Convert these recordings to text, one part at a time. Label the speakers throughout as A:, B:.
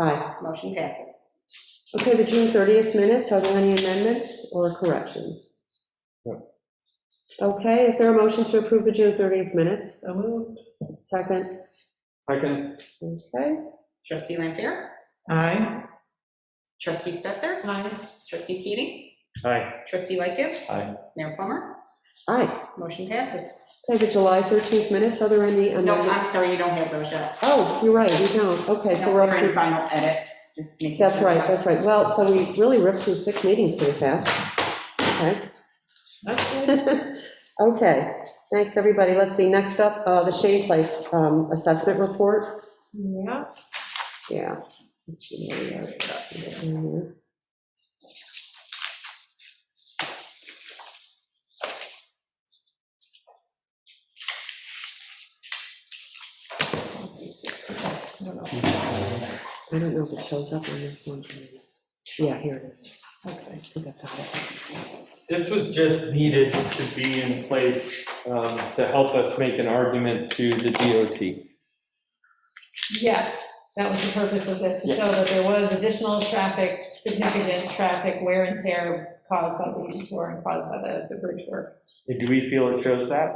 A: Aye.
B: Motion passes.
A: Okay, the June 30th minutes, are there any amendments or corrections?
C: No.
A: Okay, is there a motion to approve the June 30th minutes?
C: So moved.
A: Second,
C: Second.
A: okay.
B: Trustee Lampier?
C: Aye.
B: Trustee Stetser?
A: Aye.
B: Trustee Keating?
C: Aye.
B: Trustee Lightgift?
C: Aye.
B: Mayor Plummer?
A: Aye.
B: Motion passes.
A: Okay, the July 13th minutes, are there any
B: No,
A: amendments?
B: I'm sorry, you don't have those yet.
A: Oh, you're right, we don't. Okay, so
B: No,
A: we're up
B: in
A: to,
B: final edit, just making.
A: that's
B: sure.
A: right, that's right. Well, so we really ripped through six meetings pretty fast. Okay. Okay, thanks, everybody. Let's see, next up, uh, the Shane Place um, assessment report.
C: Yeah.
A: Yeah. Let's see, there we are. Get in there. I don't know if it shows up on this one. Yeah, here it is. Okay, I think I got it.
D: This was just needed to be in place um, to help us make an argument to the DOT.
E: Yes, that was the purpose of this, to show that there was additional traffic, significant traffic wear and tear caused by the detour and caused by the, the bridge works.
D: Do we feel it shows that?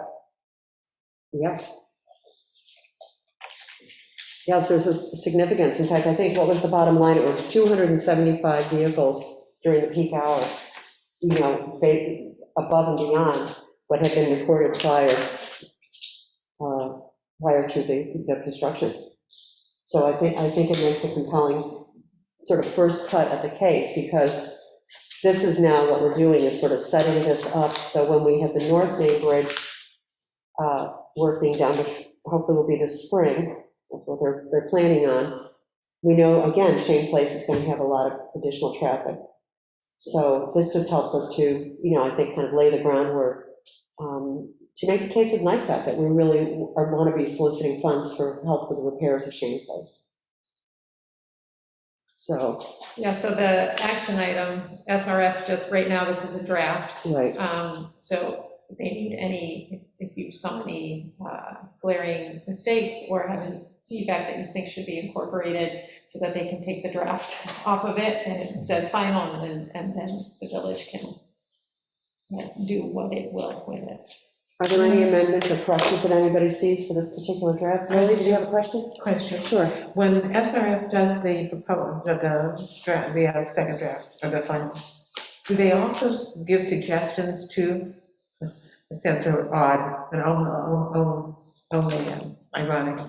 A: Yes. Yes, there's a s- significance. In fact, I think what was the bottom line? It was 275 vehicles during the peak hour, you know, ba- above and beyond what had been recorded prior, uh, prior to the the construction. So I think, I think it makes a compelling sort of first cut at the case because this is now what we're doing is sort of setting this up. So when we have the North Main Bridge uh, working down the, hopefully will be this spring, that's what they're, they're planning on. We know, again, Shane Place is going to have a lot of additional traffic. So this just helps us to, you know, I think, kind of lay the groundwork um, to make the case with NISTOC that we really are, want to be soliciting funds for help with the repairs of Shane Place. So,
E: Yeah, so the action item, SRF, just right now, this is a draft.
A: right,
E: Um, so if they need any, if you saw any uh, glaring mistakes or have any feedback that you think should be incorporated so that they can take the draft off of it and it says final and then, and then the village can yeah, do what it will with it.
A: are there any amendments or corrections that anybody sees for this particular draft? Mary, did you have a question?
C: Question.
A: Sure.
C: When SRF does the proposal, the- the draft, the uh, second draft, or the final, do they also give suggestions to, it sounds so odd, and only ironic,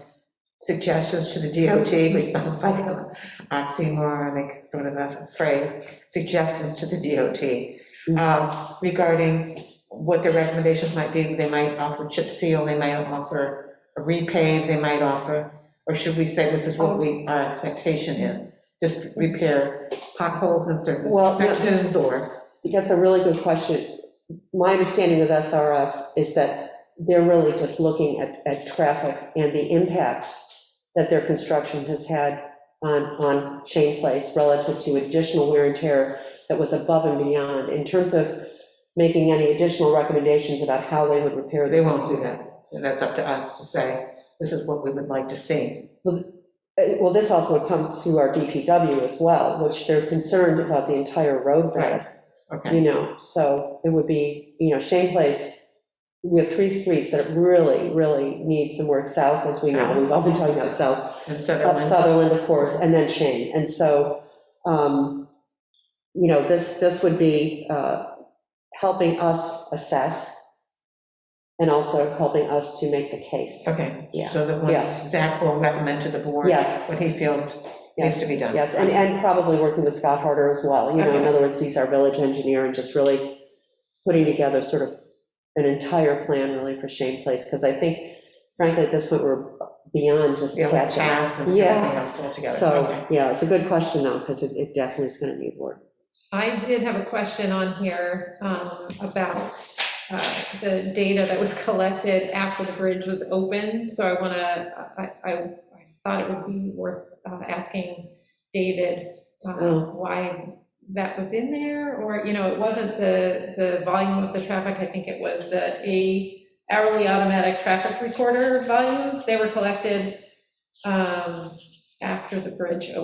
C: suggestions to the DOT, which sounds like an oxymoron, like sort of a phrase, suggestions to the
A: Mm.
C: DOT um, regarding what their recommendations might be. They might offer chip seal, they might offer a repave, they might offer or should we say this is what we, our expectation is? Just repair potholes in certain
A: Well, yeah.
C: sections or?
A: That's a really good question. My understanding with SRF is that they're really just looking at, at traffic and the impact that their construction has had on, on Shane Place relative to additional wear and tear that was above and beyond. In terms of making any additional recommendations about how they would repair
C: They
A: this.
C: won't do that. And that's up to us to say, this is what we would like to see.
A: Uh, Well, this also would come through our DPW as well, which they're concerned about the entire road bed. you
C: Okay,
A: know, so it would be, you know, Shane Place, we have three streets that really, really need some work south, as we know, we've all been talking about south,
C: and
A: up
C: Sutherland,
A: Sutherland, of course, and then Shane, and so, um, you know, this, this would be, uh, helping us assess and also helping us to make the case.
C: okay.
A: Yeah.
C: So that
A: Yeah.
C: when Zach will recommend to the board
A: Yes.
C: what he feels needs to be done.
A: Yes, and, and probably working with Scott Harder as well, you know, in
C: Okay.
A: other words, he's our village engineer and just really putting together sort of an entire plan really for Shane Place, because I think frankly, at this point, we're beyond just
C: Yeah, like
A: catching.
C: path and everything
A: Yeah.
C: else altogether.
A: So,
C: Okay.
A: yeah, it's a good question though, because it, it definitely is going to need work.
E: I did have a question on here um, about uh, the data that was collected after the bridge was open, so I want to, I, I I thought it would be worth uh, asking David um,
A: Oh.
E: why that was in there, or, you know, it wasn't the, the volume of the traffic, I think it was the A hourly automatic traffic recorder volumes, they were collected um, after the bridge opened.